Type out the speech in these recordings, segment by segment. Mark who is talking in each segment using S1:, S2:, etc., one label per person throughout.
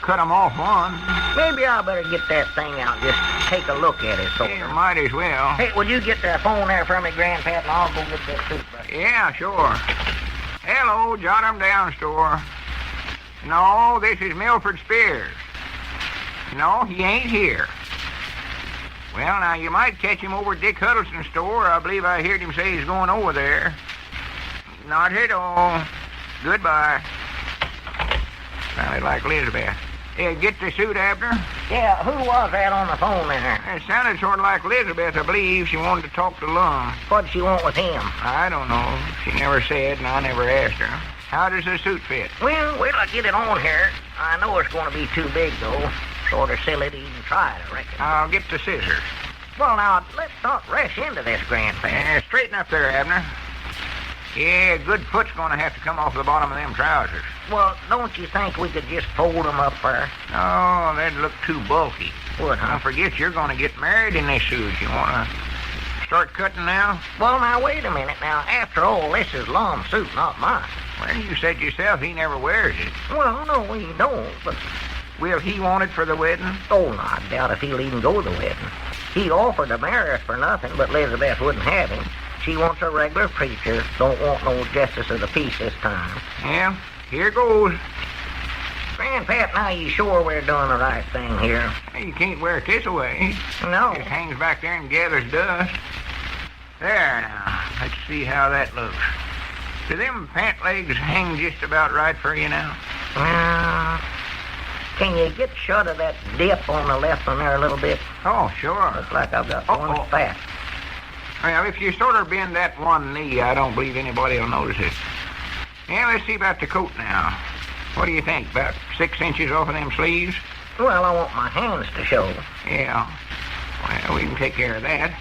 S1: cut 'em off one.
S2: Maybe I better get that thing out and just take a look at it,
S1: You
S2: soldier.
S1: might as well.
S2: Hey, will you get that phone there for me, Grandpap, and I'll go get that toothbrush.
S1: Yeah, sure. Hello, jot 'em down, store. No, this is Milford Spears. No, he ain't here. Well, now, you might catch him over at Dick Huddleston's store. I believe I heard him say he's going over there. Not at all. Goodbye. Sounded like Elizabeth. Yeah, get the suit, Abner.
S2: Yeah, who was that on the phone there?
S1: It sounded sort of like Elizabeth, I believe. She wanted to talk to Lum.
S2: What'd she want with him?
S1: I don't know. She never said, and I never asked her. How does the suit fit?
S2: Well, wait till I get it on here. I know it's going to be too big, though. Sort of silly to even try it, I reckon.
S1: I'll get the scissors.
S2: well, now, let's not rush into this, Grandpap.
S1: Yeah, Eh, straighten up there, Abner. Yeah, good foot's gonna have to come off the bottom of them trousers.
S2: Well, don't you think we could just fold 'em up there?
S1: Oh, that'd look too bulky.
S2: Would, huh?
S1: Don't forget you're gonna get married in this suit. You wanna start cutting now?
S2: Well, now, wait a minute. Now, after all, this is Lom's suit, not mine.
S1: Well, you said yourself he never wears it.
S2: Well, no, he don't, but...
S1: Will he want it for the wedding?
S2: Oh, no, I doubt if he'll even go to the wedding. He offered to marry us for nothing, but Elizabeth wouldn't have him. She wants a regular preacher. Don't want no justice of the peace this time.
S1: Yeah, here goes.
S2: Grandpap, now you sure we're doing the right thing here?
S1: You can't wear eh? it this away.
S2: No.
S1: It hangs back there and gathers dust. There now. Let's see how that looks. Do them pant legs hang just about right for you now?
S2: Uh, can you get shut of that dip on the left one there a little bit?
S1: Oh, sure.
S2: Looks like I've got
S1: Uh-oh.
S2: one fat.
S1: Well, if you sort of bend that one knee, I don't believe anybody will notice it. Yeah, let's see about the coat now. What do you think? About six inches off of them sleeves?
S2: Well, I want my hands to show.
S1: Yeah. Well, we can take care of that.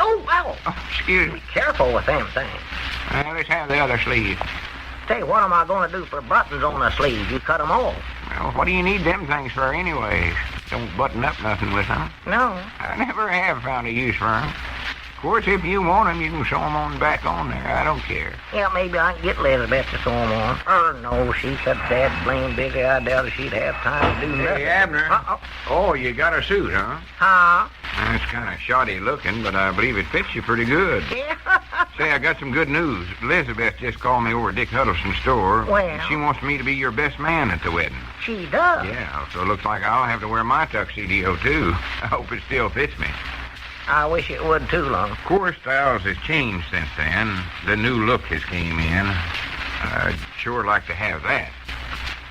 S2: Oh, ow!
S1: Oh, excuse me.
S2: Be careful with them things.
S1: Well, let's have the other sleeve.
S2: Say, what am I going to do for buttons on the sleeve? You cut 'em off.
S1: Well, what do you need them things for anyways? Don't button up nothing with them.
S2: No.
S1: I never have found a use for 'em. Of course, if you want 'em, you can sew 'em on back on there. I don't care.
S2: Yeah, maybe I can get Elizabeth to sew 'em on. Er, no, she's such that blame busy, I doubt if she'd have time to do nothing. Uh-oh.
S1: Oh, you got a suit, huh?
S2: Huh?
S1: That's kind of shoddy looking, but I believe it fits you pretty good.
S2: Yeah.
S1: Say, I got some good news. Elizabeth just called me over at Dick Huddleston's store.
S2: Well?
S1: She wants me to be your best man at the wedding.
S2: she does.
S1: Yeah, so it looks like I'll have to wear my tuxedo, too. I hope it still fits me.
S2: I wish it would too, Lum.
S1: Of course, styles has changed since then. The new look has came in. I'd sure like to have that.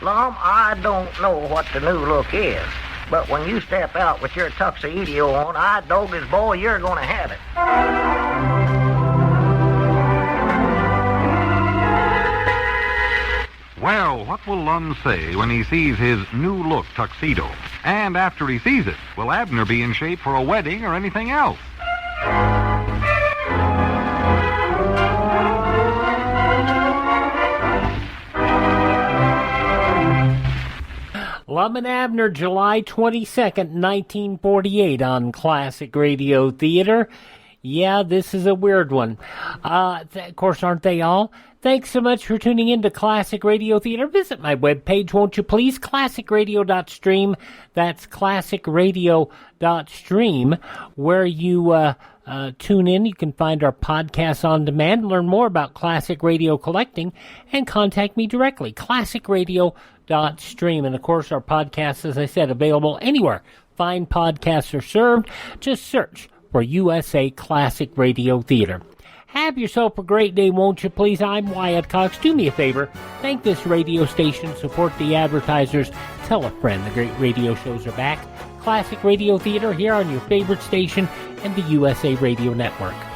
S2: Lum, I don't know what the new look is, but when you step out with your tuxedo on, I dog as boy, you're going to have it.
S3: Well, what will Lund say when he sees his new look tuxedo? And after he sees it, will Abner be in shape for a wedding or anything else?
S4: Lum and Abner, July 22nd, 1948, on Classic Radio Theater. Yeah, this is a weird one. Uh, th- of course, aren't they all? Thanks so much for tuning in to Classic Radio Theater. Visit my webpage, won't you please? ClassicRadio.stream. That's ClassicRadio.stream, where you, uh, uh, tune in. You can find our podcasts on demand, learn more about classic radio collecting, and contact me directly. ClassicRadio.stream. And of course, our podcasts, as I said, available anywhere. Fine podcasts are served. Just search for USA Classic Radio Theater. Have yourself a great day, won't you please? I'm Wyatt Cox. Do me a favor. Thank this radio station. Support the advertisers. Tell a friend the great radio shows are back. Classic Radio Theater here on your favorite station and the USA Radio Network.